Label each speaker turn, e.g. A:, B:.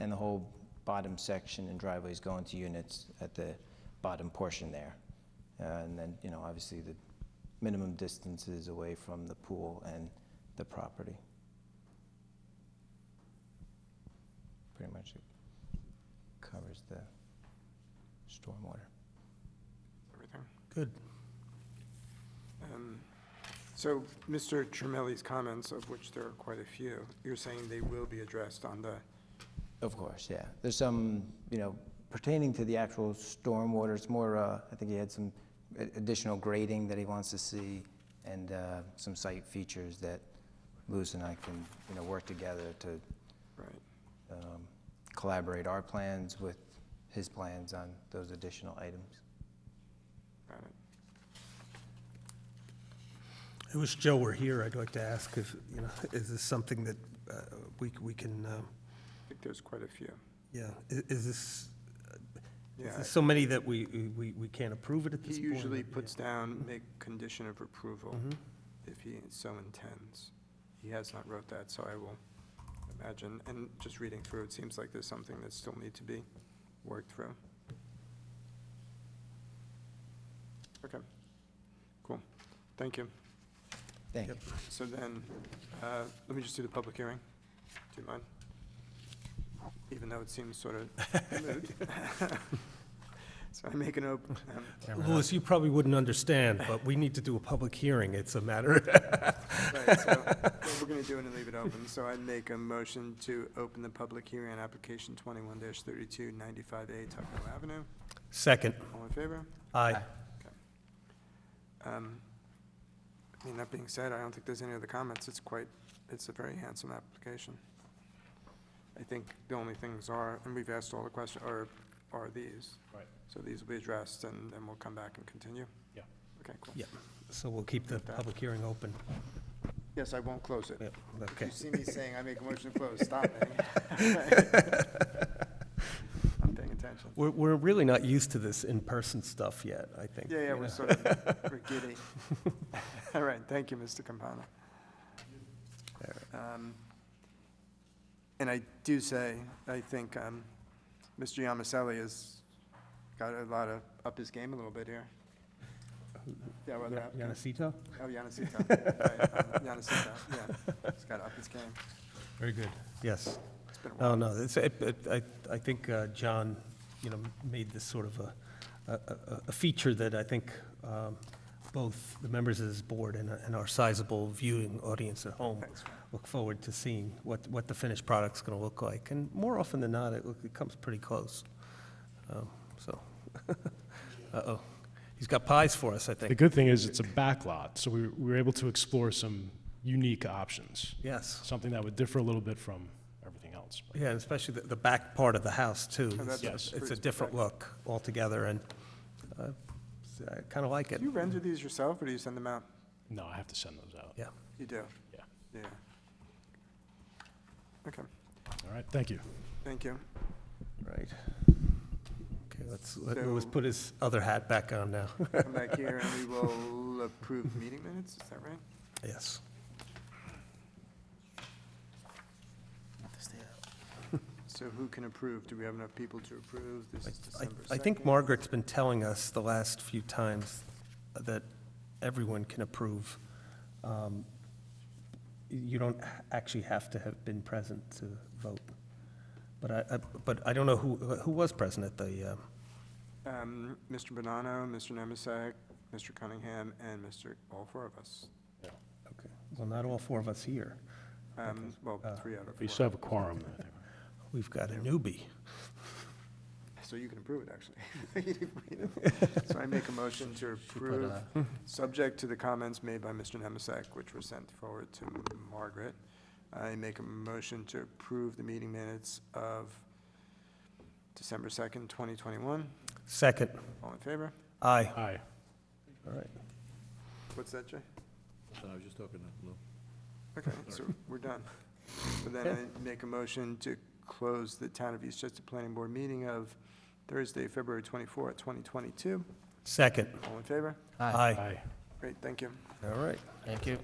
A: and the whole bottom section and driveways go into units at the bottom portion there. Uh, And then, you know, obviously, the minimum distances away from the pool and the property. Pretty much it covers the stormwater.
B: everything.
C: Good.
B: Um, So Mr. Tramelli's comments, of which there are quite a few, you're saying they will be addressed on the,
A: Of course, yeah. There's some, you know, pertaining to the actual stormwater, it's more, uh, I think he had some a- additional grading that he wants to see and uh, some site features that Louis and I can, you know, work together to
B: right,
A: um, collaborate our plans with his plans on those additional items.
B: got it.
C: I wish Joe were here. I'd like to ask if, you know, is this something that uh, we, we can, uh,
B: I think there's quite a few.
C: yeah, i- is this, is
B: Yeah,
C: this so many that we, we, we can't approve it at this
B: he
C: point?
B: usually
C: Yeah. Mm-hmm.
B: puts down, make condition of approval if he so intends. He has not wrote that, so I will imagine, and just reading through, it seems like there's something that still need to be worked through. Okay, cool, thank you.
A: Thank you.
B: So then, uh, let me just do the public hearing. Do you mind? Even though it seems sort of moot. So I make um, an open,
C: Louis, you probably wouldn't understand, but we need to do a public hearing. It's a matter,
B: right, so what we're going to do it and leave it open. So I make a motion to open the public hearing on application 21-3295A Tuckahoe Avenue.
C: second.
B: All in favor?
C: Aye.
B: Um, I mean, that being said, I don't think there's any other comments. It's quite, it's a very handsome application. I think the only things are, and we've asked all the questions, are, are these.
D: Right.
B: So these will be addressed, and then we'll come back and continue?
D: Yeah.
B: Okay, cool.
C: Yeah, so we'll keep the public hearing open.
B: Yes, I won't close it.
C: Yeah,
B: If you
C: okay.
B: see me saying I make a motion to close, stop me. I'm paying attention.
C: We're, we're really not used to this in-person stuff yet, I think.
B: Yeah, yeah,
C: you
B: we're
C: know.
B: sort of, we're giddy. All right, thank you, Mr. Campana. Um, And I do say, I think um, Mr. Yamaselli has got a lot of, up his game a little bit here. Yeah, well, that-
C: Yanacito?
B: oh, Yanacita, right, um, Yanacita, yeah, he's got to up his game.
C: Very good. Yes. Oh,
B: It's been a while.
C: No, no, it's, it- it- I, I think uh, John, you know, made this sort of a, a- a, a feature that I think um, both the members of this board and, and our sizable viewing audience at home
B: Thanks, man.
C: look forward to seeing what, what the finished product's gonna look like. And more often than not, it, look- it comes pretty close. Um, So, uh-oh. He's got pies for us, I
D: The
C: think.
D: good thing is it's a back lot, so we, we were able to explore some unique options,
C: Yes.
D: something that would differ a little bit from everything else. but-
C: Yeah, and especially the, the back part of the house, too.
B: Oh, that's
D: the
C: It's- It's a
B: street's
C: different look altogether, and uh, I kind of like it.
B: Do you render these yourself, or do you send them out?
D: No, I have to send those out.
C: Yeah.
B: You do? Yeah.
D: Yeah.
B: Okay,
D: All right, thank you.
B: thank you.
C: Right. Okay, let's, let Louis
B: So-
C: put his other hat back on now.
B: come back here and we will approve meeting minutes, is that right?
C: Yes.
B: So who can approve? Do we have enough people to approve? This
C: I-
B: is
C: I-
B: December
C: I think
B: 2nd.
C: Margaret's been telling us the last few times that everyone can approve. Um, You don't h- actually have to have been present to vote. But I, I- but I don't know who, who was present at the, uh,
B: Um, Mr. Bonanno, Mr. Nemisak, Mr. Cunningham, and Mr., all four of us.
C: okay, well, not all four of us here.
B: Um, Well,
C: Uh,
B: three out of
D: We still
B: four.
D: have a quorum, I think.
C: We've got a newbie.
B: So you can approve it, actually. So I make a motion to approve, subject to the comments made by Mr. Nemisak, which were sent forward to Margaret. I make a motion to approve the meeting minutes of December 2nd, 2021.
C: Second,
B: All in favor?
C: aye.
D: Aye.
C: All right.
B: What's that, Jay?
E: No, I was just talking to Lou.
B: Okay, so we're done. So then I make a motion to close the Town of Eastchester Planning Board meeting of Thursday, February 24th, 2022.
C: Second,
B: All in favor?
C: aye.
D: Aye.
B: Great, thank you.
C: All right.
A: Thank you.